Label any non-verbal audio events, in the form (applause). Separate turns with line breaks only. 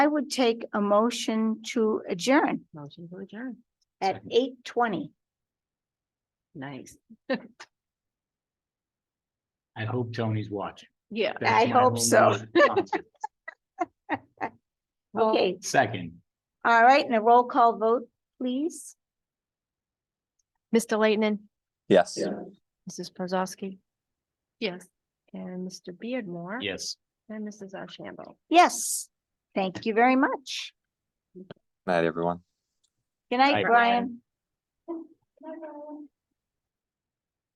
I would take a motion to adjourn
Motion to adjourn.
at
Second.
eight twenty.
Nice.
I hope Tony's watching.
Yeah.
That's
I
my
hope
whole
so.
motion.
Okay,
(laughs) Second,
all right, and a roll call vote, please.
Mr. Leighton,
Yes.
Mrs. Prozowski,
Yes.
and Mr. Beardmore.
yes.
And Mrs. Ashambo.
Yes, thank you very much.
Night, everyone.
Good
Bye,
night,
Brian.
Brian.